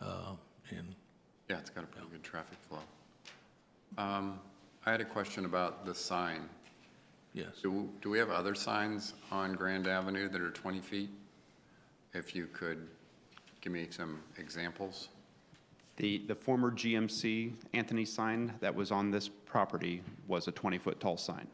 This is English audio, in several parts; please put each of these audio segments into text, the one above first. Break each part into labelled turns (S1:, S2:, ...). S1: Uh,
S2: Yeah, it's got a pretty good traffic flow. Um, I had a question about the sign.
S1: Yes.
S2: Do, do we have other signs on Grand Avenue that are 20 feet? If you could give me some examples.
S3: The, the former GMC Anthony sign that was on this property was a 20-foot tall sign.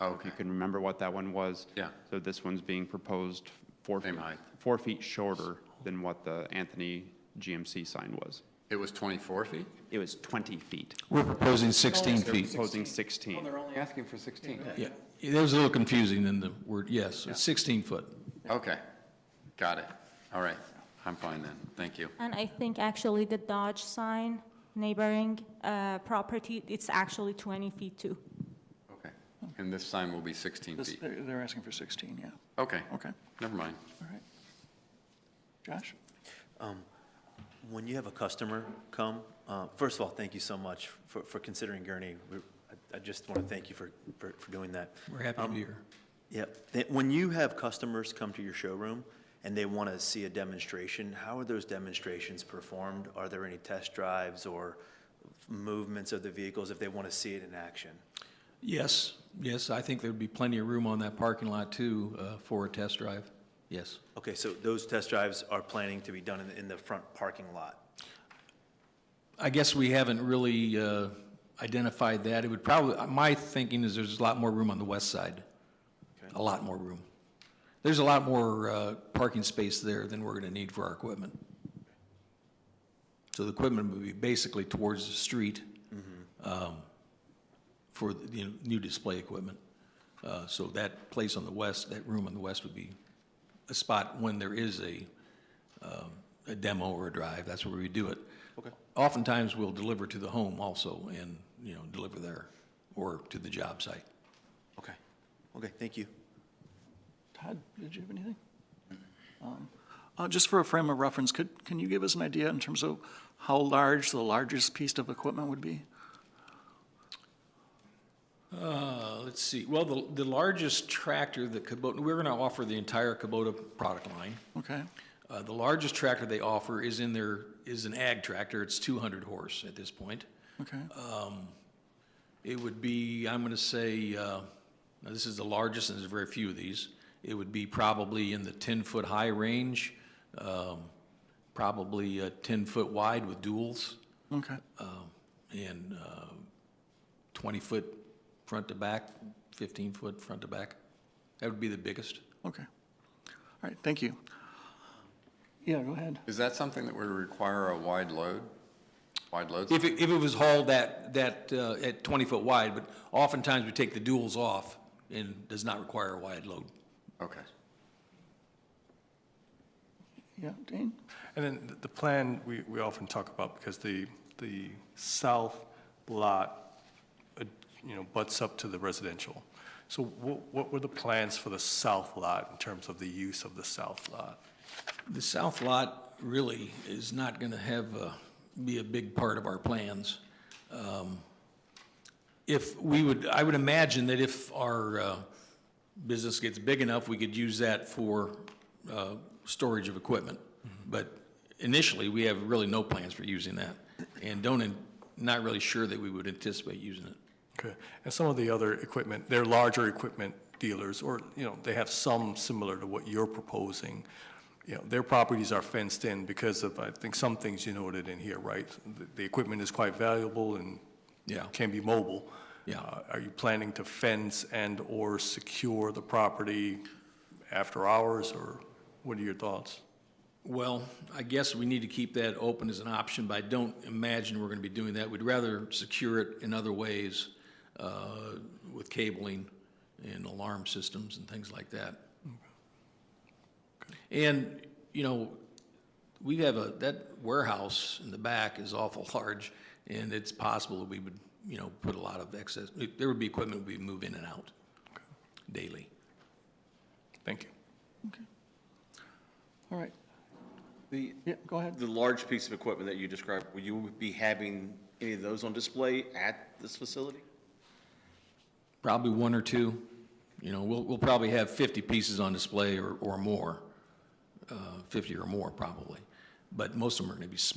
S3: If
S2: Okay,
S3: you can remember what that one was.
S2: Yeah.
S3: So this one's being proposed four
S2: Same
S3: feet,
S2: height.
S3: four feet shorter than what the Anthony GMC sign was.
S2: it was 24 feet?
S3: It was 20 feet.
S1: We're proposing 16
S3: They're
S1: feet.
S3: proposing 16.
S2: only asking for 16.
S1: Yeah, it was a little confusing in the word, yes, it's 16 foot.
S2: Okay, got it. All right, I'm fine then, thank you.
S4: And I think actually the Dodge sign neighboring uh, property, it's actually 20 feet too.
S2: Okay, and this sign will be 16
S5: This-
S2: feet?
S5: They're they're asking for 16, yeah.
S2: Okay,
S5: Okay,
S2: never mind.
S5: all right. Josh?
S6: When you have a customer come, uh, first of all, thank you so much for for considering Gurnee. We're- I I just want to thank you for for for doing that.
S1: We're happy to be here.
S6: Yep. That- When you have customers come to your showroom and they want to see a demonstration, how are those demonstrations performed? Are there any test drives or movements of the vehicles if they want to see it in action?
S1: Yes, yes, I think there'd be plenty of room on that parking lot too uh, for a test drive. Yes.
S6: Okay, so those test drives are planning to be done in the- in the front parking lot?
S1: I guess we haven't really uh, identified that. It would probably, my thinking is there's a lot more room on the west side. A lot more room. There's a lot more uh, parking space there than we're going to need for our equipment. So the equipment would be basically towards the street um, for the you know, new display equipment. Uh, So that place on the west, that room on the west would be a spot when there is a a demo or a drive, that's where we do it. Okay. Oftentimes, we'll deliver to the home also and, you know, deliver there or to the job site.
S6: Okay. Okay, thank you.
S5: Todd, did you have anything? Um, uh, Just for a frame of reference, could, can you give us an idea in terms of how large the largest piece of equipment would be?
S1: Uh, let's see, well, the, the largest tractor that Kubota, we're gonna offer the entire Kubota product line.
S5: Okay,
S1: Uh, the largest tractor they offer is in their, is an ag tractor, it's two hundred horse at this point.
S5: okay,
S1: It would be, I'm gonna say, uh, now this is the largest, and there's very few of these. It would be probably in the ten-foot high range, um, probably uh, ten-foot wide with duals,
S5: okay.
S1: and uh, twenty-foot front to back, fifteen-foot front to back. That would be the biggest.
S5: Okay. All right, thank you. Yeah, go ahead.
S2: Is that something that would require a wide load? Wide load?
S1: If it, if it was hauled that, that, uh, at twenty-foot wide, but oftentimes we take the duals off and does not require a wide load.
S2: Okay,
S5: Yeah, Dane?
S7: And then th- the plan, we, we often talk about, because the, the south lot, uh, you know, butts up to the residential. So what, what were the plans for the south lot in terms of the use of the south lot?
S1: The south lot really is not going to have, uh, be a big part of our plans. Um, If we would, I would imagine that if our uh, business gets big enough, we could use that for uh, storage of equipment. But initially, we have really no plans for using that and don't, an- not really sure that we would anticipate using it.
S7: Okay, and some of the other equipment, they're larger equipment dealers, or, you know, they have some similar to what you're proposing. You know, their properties are fenced in because of, I think, some things you noted in here, right? The, the equipment is quite valuable and
S1: Yeah.
S7: can be mobile.
S1: Yeah.
S7: Uh, Are you planning to fence and/or secure the property after hours, or what are your thoughts?
S1: Well, I guess we need to keep that open as an option, but I don't imagine we're going to be doing that. We'd rather secure it in other ways uh, with cabling and alarm systems and things like that. And, you know, we have a, that warehouse in the back is awful large, and it's possible that we would, you know, put a lot of excess, there would be equipment we move in and out daily.
S7: Thank you.
S5: All right,
S8: The,
S5: yeah, go ahead.
S8: the large piece of equipment that you described, will you be having any of those on display at this facility?
S1: Probably one or two. You know, we'll, we'll probably have 50 pieces on display or, or more, uh, 50 or more probably. But most of them are going to be small.